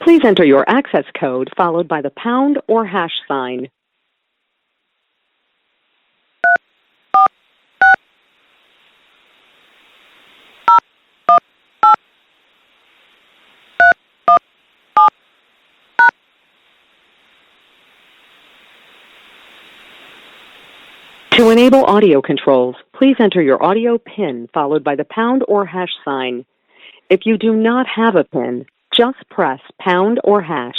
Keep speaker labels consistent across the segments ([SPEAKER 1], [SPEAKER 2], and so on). [SPEAKER 1] Please enter your access code followed by the pound or hash sign. To enable audio controls, please enter your audio PIN followed by the pound or hash sign. If you do not have a PIN, just press pound or hash.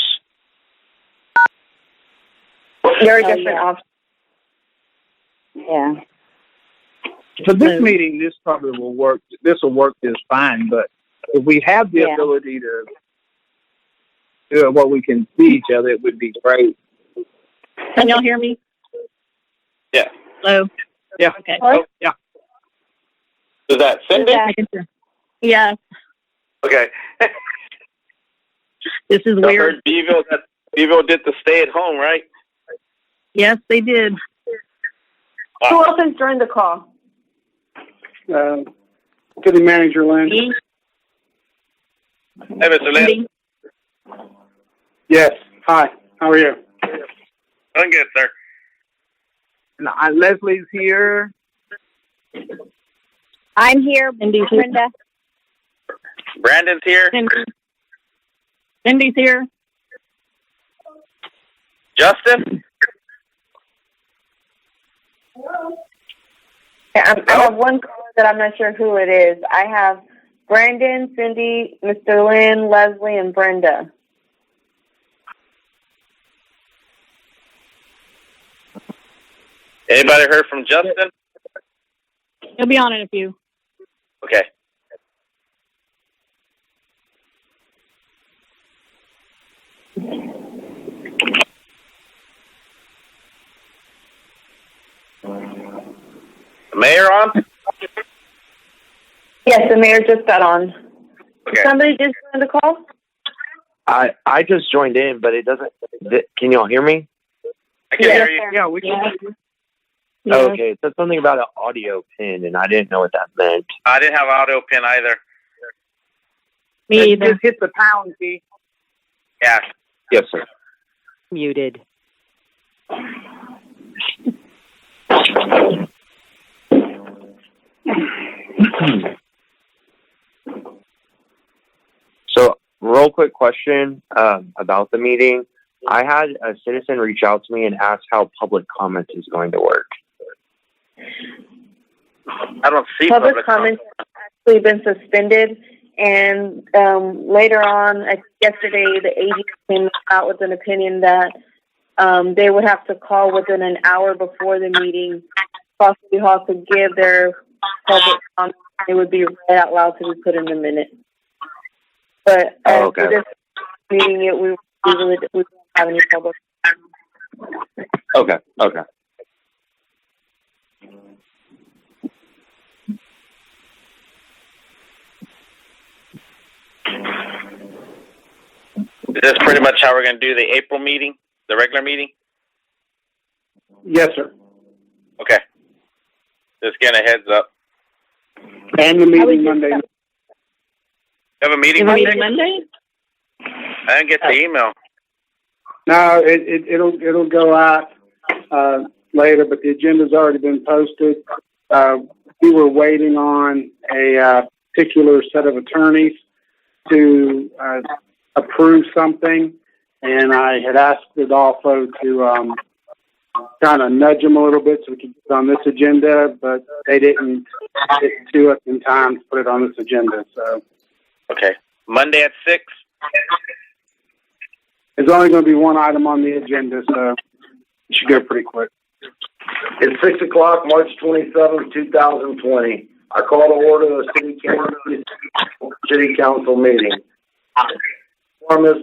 [SPEAKER 2] There are
[SPEAKER 3] Oh,
[SPEAKER 2] different
[SPEAKER 3] yeah.
[SPEAKER 2] options.
[SPEAKER 3] Yeah.
[SPEAKER 4] For this
[SPEAKER 3] Mm.
[SPEAKER 4] meeting, this probably will work. This will work just fine. But if we have the
[SPEAKER 3] Yeah.
[SPEAKER 4] ability to do it, what we can see each other, it would be great.
[SPEAKER 3] Can y'all hear me?
[SPEAKER 5] Yeah.
[SPEAKER 3] Hello?
[SPEAKER 4] Yeah.
[SPEAKER 3] Okay.
[SPEAKER 5] Oh,
[SPEAKER 4] yeah.
[SPEAKER 5] Is that Cindy?
[SPEAKER 2] Yeah.
[SPEAKER 3] I can hear. Yeah,
[SPEAKER 5] Okay.
[SPEAKER 3] this is
[SPEAKER 5] I
[SPEAKER 3] weird.
[SPEAKER 5] heard Beville, that Beville did the stay at home, right?
[SPEAKER 3] Yes, they did.
[SPEAKER 2] Who else has joined the call?
[SPEAKER 6] uh, city manager Lynn.
[SPEAKER 3] Me,
[SPEAKER 5] Hey, Mr. Lynn.
[SPEAKER 3] Cindy,
[SPEAKER 6] Yes. Hi. How are you?
[SPEAKER 5] I'm good, sir.
[SPEAKER 4] And uh, Leslie's here.
[SPEAKER 7] I'm here,
[SPEAKER 3] Cindy's here.
[SPEAKER 7] Brenda.
[SPEAKER 5] Brandon's here.
[SPEAKER 3] Cindy. Cindy's here.
[SPEAKER 5] Justin?
[SPEAKER 2] Yeah, I'm- I have one caller that I'm not sure who it is. I have Brandon, Cindy, Mr. Lynn, Leslie, and Brenda.
[SPEAKER 5] Anybody heard from Justin?
[SPEAKER 3] He'll be on in a few.
[SPEAKER 5] Okay. The mayor on?
[SPEAKER 2] Yes, the mayor just got on.
[SPEAKER 5] Okay.
[SPEAKER 2] Somebody just joined the call?
[SPEAKER 8] I I just joined in, but it doesn't. Th- can y'all hear me?
[SPEAKER 5] I can hear you.
[SPEAKER 4] Yeah, we can.
[SPEAKER 3] Yeah.
[SPEAKER 8] Okay, it said something about an audio pin, and I didn't know what that meant.
[SPEAKER 5] I didn't have audio pin either.
[SPEAKER 3] Me
[SPEAKER 4] Just
[SPEAKER 3] either.
[SPEAKER 4] hit the pound key.
[SPEAKER 5] Yeah.
[SPEAKER 8] Yes, sir.
[SPEAKER 1] Muted.
[SPEAKER 8] So, real quick question um, about the meeting. I had a citizen reach out to me and ask how public comment is going to work.
[SPEAKER 5] I don't see
[SPEAKER 2] Public comments have actually been suspended, and um, later on, I think yesterday, the AG came out with an opinion that um, they would have to call within an hour before the meeting, for City Hall to give their public comment. It would be read out loud to be put in the minute. But uh,
[SPEAKER 8] Oh, okay.
[SPEAKER 2] for this meeting, it we, we really we don't have any public.
[SPEAKER 8] Okay. Okay.
[SPEAKER 5] Is this pretty much how we're going to do the April meeting, the regular meeting?
[SPEAKER 6] Yes, sir.
[SPEAKER 5] Okay. Just getting a heads up.
[SPEAKER 6] And the
[SPEAKER 2] I would
[SPEAKER 6] meeting
[SPEAKER 2] just-
[SPEAKER 6] Monday.
[SPEAKER 5] You have a meeting
[SPEAKER 3] Monday,
[SPEAKER 5] Monday?
[SPEAKER 3] Monday?
[SPEAKER 5] I didn't get the email.
[SPEAKER 6] No, it, it it'll it'll go out uh, later, but the agenda's already been posted. Uh, we were waiting on a uh, particular set of attorneys to uh, approve something, and I had asked Adolfo to um, kind of nudge them a little bit so we could get on this agenda, but they didn't get to us in time to put it on this agenda. So
[SPEAKER 5] Okay. Monday at 6?
[SPEAKER 6] there's only going to be one item on the agenda, so it should go pretty quick.
[SPEAKER 9] It's six o'clock, March twenty-seventh, two thousand twenty. I call to order the city council, city council meeting. Quorum is